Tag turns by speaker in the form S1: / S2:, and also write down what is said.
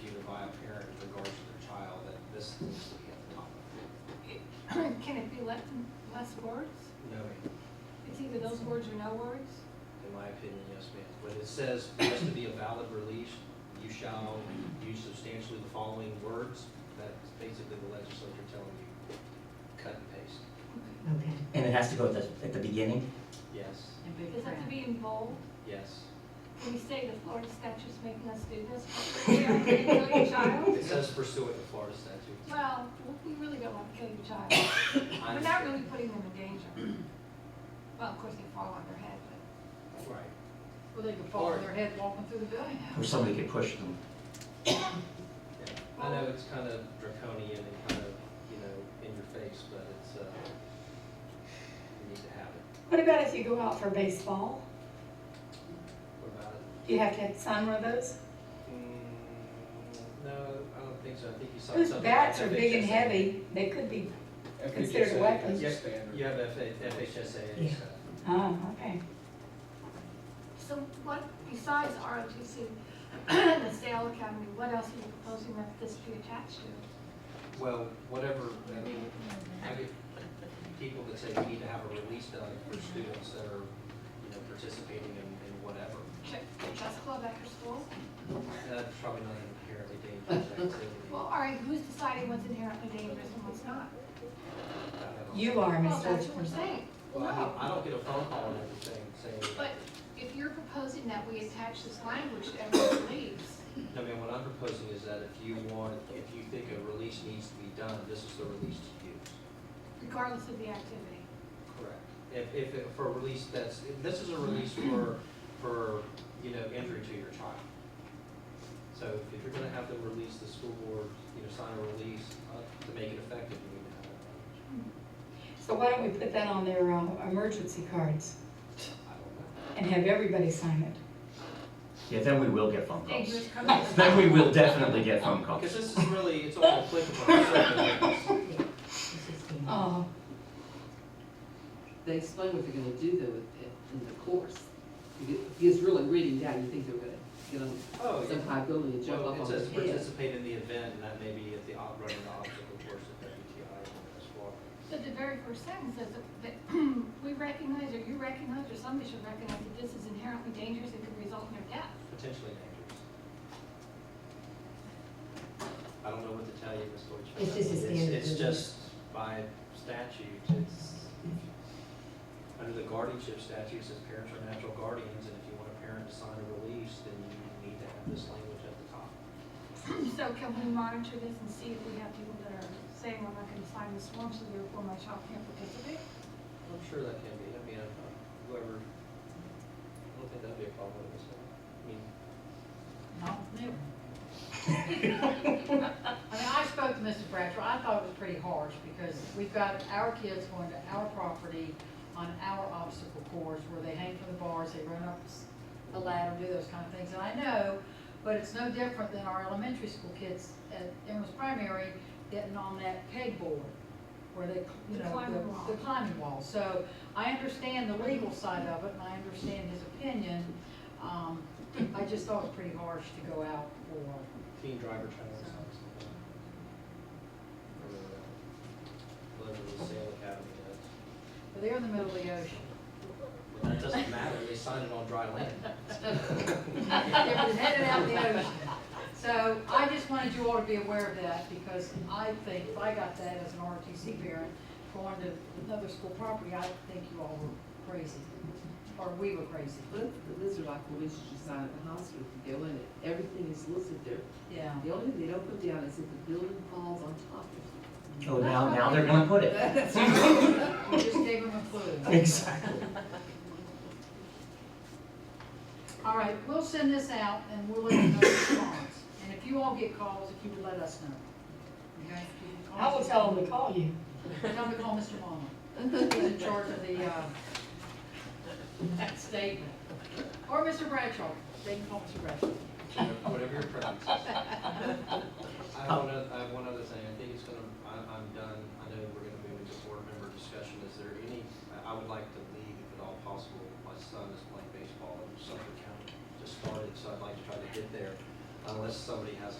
S1: last words?
S2: No, ma'am.
S1: It's either those words or no words?
S2: in my opinion, yes, ma'am. When it says, for this to be a valid release, you shall use substantially the following words, that's basically the legislature telling you, cut and paste.
S3: Okay.
S4: And it has to go at the, at the beginning?
S2: Yes,
S1: Does it have to be in bold?
S2: yes.
S1: Can we say the Florida statute's making us do this? We are gonna kill your child?
S2: It says pursuant to Florida statutes.
S1: Well, we really don't want to kill your child.
S2: I
S1: We're not
S2: understand.
S1: really putting them in danger. Well, of course, they fall on their head,
S2: Right.
S5: Well, they could fall on their head walking through the building.
S4: Or somebody could push them?
S2: Yeah. I know it's kind of draconian and kind of, you know, in your face, but it's, uh, you need to have it.
S6: What about if you go out for baseball?
S2: What about it?
S6: Do you have to sign one of those?
S2: Mm, No, I don't think so. I think you saw something.
S6: Those bats are
S2: like
S6: big and
S2: FHSA.
S6: heavy, they could be, Considered
S7: FHSA
S6: weapons.
S7: is the
S2: Yes,
S7: standard.
S2: You have FH FHSA and
S4: Yeah.
S2: stuff.
S6: oh, okay.
S1: but. So what, besides ROTC and the Sale Academy, what else are you proposing that this be attached to?
S2: Well, whatever, I mean, I get people that say we need to have a release done for students that are, you know, participating in, in whatever.
S1: Ch- Chess club after school?
S2: That's probably not an inherently dangerous activity.
S1: Well, all right, who's deciding what's inherently dangerous and what's not?
S2: I don't know.
S6: You are,
S1: Well, that's
S6: Mr.
S1: what we're saying.
S2: Well, I don't-
S1: No,
S2: I don't get a phone call and everything saying,
S1: but if you're proposing that we attach this language to every release,
S2: I mean, what I'm proposing is that if you want, if you think a release needs to be done, this is the release to use.
S1: regardless of the activity.
S2: Correct. If, if, it- for a release that's, if this is a release for, for, you know, injury to your child. So if you're gonna have to release the school board, you know, sign a release, uh, to make it effective, you need to have it.
S6: So why don't we put that on their uh, emergency cards
S2: I don't know.
S6: and have everybody sign it?
S4: Yeah, then we will get phone calls.
S1: Dangerous conduct.
S4: Then we will definitely get phone calls.
S2: Because this is really, it's all applicable to certain things.
S6: Oh,
S8: They explain what they're gonna do though with it in the course. Because really reading down, you think they're gonna get on
S2: Oh,
S8: some high building and jump
S2: Well,
S8: up
S2: it
S8: on their
S2: says
S8: head.
S2: participate in the event, and that may be at the, ob- running the obstacle course at WTI or SWAC.
S1: But the very first sentence says that- that we recognize, or you recognize, or somebody should recognize that this is inherently dangerous and could result in their death.
S2: Potentially dangerous. I don't know what to tell you, Ms. Deutschman.
S3: It's just a standard
S2: It's
S3: release.
S2: just by statute, it's, under the guardianship statute, it says parents are natural guardians, and if you want a parent to sign a release, then you need to have this language at the top.
S1: So can we monitor this and see if we have people that are saying, I'm not gonna sign this form, so therefore my child can't participate?
S2: I'm sure that can be, I mean, I- I- whoever, I don't think that'd be a problem with this one. I mean,
S5: No, never. I mean, I spoke to Mr. Bradshaw, I thought it was pretty harsh, because we've got our kids going to our property on our obstacle course, where they hang from the bars, they run up s- the ladder, do those kind of things, and I know, but it's no different than our elementary school kids at Emerald's Primary getting on that pegboard, where they, you
S1: The
S5: know,
S1: climbing wall.
S5: the, the climbing wall. So I understand the legal side of it, and I understand his opinion, um, I just thought it was pretty harsh to go out for
S2: teen driver training or something. Or, uh, Whatever the sale academy does.
S5: But They're in the middle of the ocean.
S2: Well, that doesn't matter, they signed it on dry land.
S5: They're headed out in the ocean. So I just wanted you all to be aware of that because I think if I got that as an ROTC parent going to another school property, I think you all were crazy. Or we were crazy.
S8: But these are like releases you sign at the hospital, if you go in it, everything is listed there.
S5: Yeah.
S8: The only thing they don't put down is if the building falls on top of
S4: Oh, now, now they're gonna put it.
S8: you.
S5: We just gave them a clue.
S4: Exactly.
S5: All right, we'll send this out and we'll let you know the response. And if you all get calls, if you would let us know. Okay? If you
S6: I will
S5: get
S6: tell
S5: calls-
S6: them to call you.
S5: Tell me to call Mr. Palmer. He's in charge of the, uh, that statement. Or Mr. Bradshaw. They can call Mr. Bradshaw.
S2: Whatever your preference is. I have one, oth- I have one other thing, I think it's gonna, I'm, I'm done, I know we're gonna move into board member discussion, is there any, I- I would like to leave if at all possible, my son is playing baseball in Suffolk County, just started, so I'd like to try to get there, unless somebody has a